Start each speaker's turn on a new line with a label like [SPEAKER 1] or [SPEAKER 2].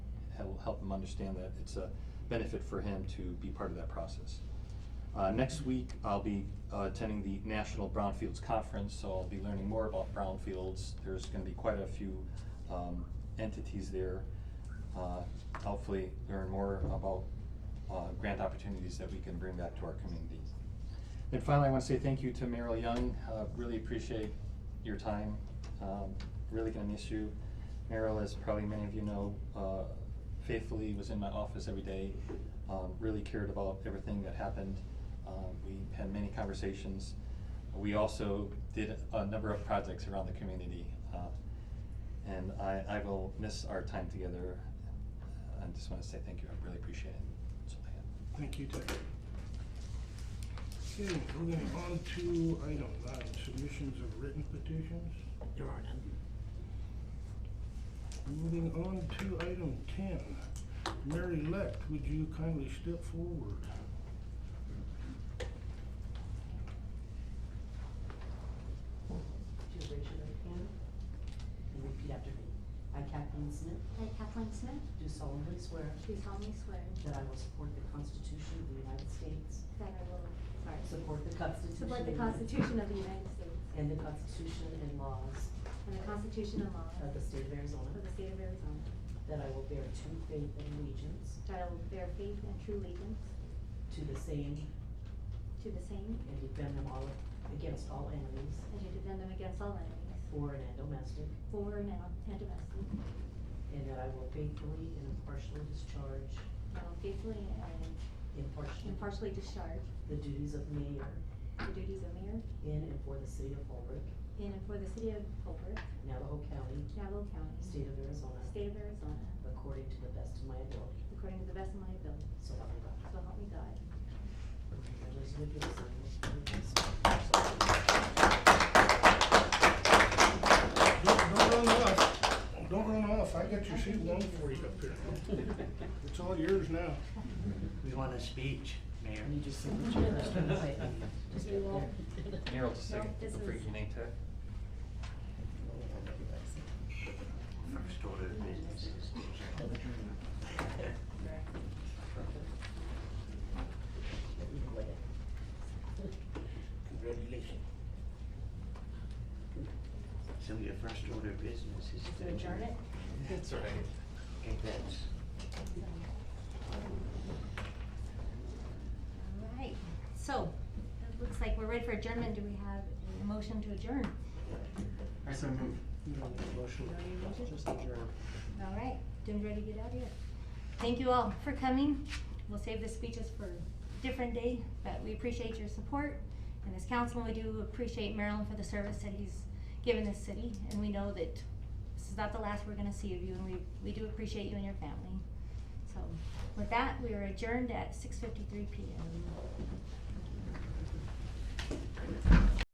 [SPEAKER 1] help him understand that it's a benefit for him to be part of that process. Uh, Next week, I'll be uh, attending the National Brownfields Conference, so I'll be learning more about brownfields. There's gonna be quite a few um, entities there. Uh, Hopefully, learn more about uh, grant opportunities that we can bring back to our community. And finally, I want to say thank you to Merrill Young. Uh, Really appreciate your time. Um, Really gonna miss you. Merrill, as probably many of you know, uh, faithfully was in my office every day, um, really cared about everything that happened. Um, We had many conversations. We also did a number of projects around the community. uh, And I, I will miss our time together. I just want to say thank you. I really appreciate it. So, yeah.
[SPEAKER 2] Thank you, Ted. Okay, moving on to item nine, submissions of written petitions.
[SPEAKER 3] There are none.
[SPEAKER 2] Moving on to item ten, Mary Leck, would you kindly step forward?
[SPEAKER 3] Would you raise your right hand and repeat after me? I, Kathleen Smith,
[SPEAKER 4] I, Kathleen Smith,
[SPEAKER 3] do solemnly swear
[SPEAKER 4] do solemnly swear
[SPEAKER 3] that I will support the Constitution of the United States,
[SPEAKER 4] that I will, sorry,
[SPEAKER 3] support the Constitution.
[SPEAKER 4] support the
[SPEAKER 3] and-
[SPEAKER 4] Constitution of the United States
[SPEAKER 3] And the Constitution and laws
[SPEAKER 4] and the Constitution and laws
[SPEAKER 3] of the State of Arizona,
[SPEAKER 4] of the state of Arizona,
[SPEAKER 3] that I will bear true faith and allegiance
[SPEAKER 4] that I will bear faith and true allegiance
[SPEAKER 3] to the same
[SPEAKER 4] to the same
[SPEAKER 3] and defend them all against all enemies,
[SPEAKER 4] and to defend them against all enemies,
[SPEAKER 3] foreign and domestic,
[SPEAKER 4] foreign and and domestic,
[SPEAKER 3] and that I will faithfully and impartially discharge,
[SPEAKER 4] that I will faithfully and
[SPEAKER 3] impartially,
[SPEAKER 4] impartially discharge
[SPEAKER 3] the duties of mayor
[SPEAKER 4] the duties of mayor
[SPEAKER 3] in and for the city of Holbrook,
[SPEAKER 4] in and for the city of Holbrook,
[SPEAKER 3] Navajo County,
[SPEAKER 4] Navajo County,
[SPEAKER 3] State of Arizona,
[SPEAKER 4] state of Arizona,
[SPEAKER 3] according to the best of my ability.
[SPEAKER 4] according to the best of my ability,
[SPEAKER 3] So help me God.
[SPEAKER 4] so help me God.
[SPEAKER 3] Congratulations.
[SPEAKER 2] Don't, don't run off, don't run off, I got your seat warm for you up here. It's all yours now.
[SPEAKER 5] We want a speech, Mayor.
[SPEAKER 3] I need your signature. Just
[SPEAKER 4] We will.
[SPEAKER 3] right there.
[SPEAKER 1] Merrill, just
[SPEAKER 4] No,
[SPEAKER 1] take
[SPEAKER 4] this
[SPEAKER 1] the
[SPEAKER 4] is-
[SPEAKER 1] freaking name tag.
[SPEAKER 5] First order of business is
[SPEAKER 3] Congratulations.
[SPEAKER 5] So your first order of business is to.
[SPEAKER 4] To adjourn it?
[SPEAKER 1] That's all right.
[SPEAKER 5] Okay, that's.
[SPEAKER 4] All right, so, it looks like we're ready for adjournment, do we have a motion to adjourn?
[SPEAKER 5] I so move.
[SPEAKER 4] All right, Jim's ready to get out of here. Thank you all for coming, we'll save the speeches for a different day, but we appreciate your support. And as council, we do appreciate Marilyn for the service that he's given this city, and we know that this is not the last we're gonna see of you, and we, we do appreciate you and your family. So, with that, we are adjourned at six fifty-three P M.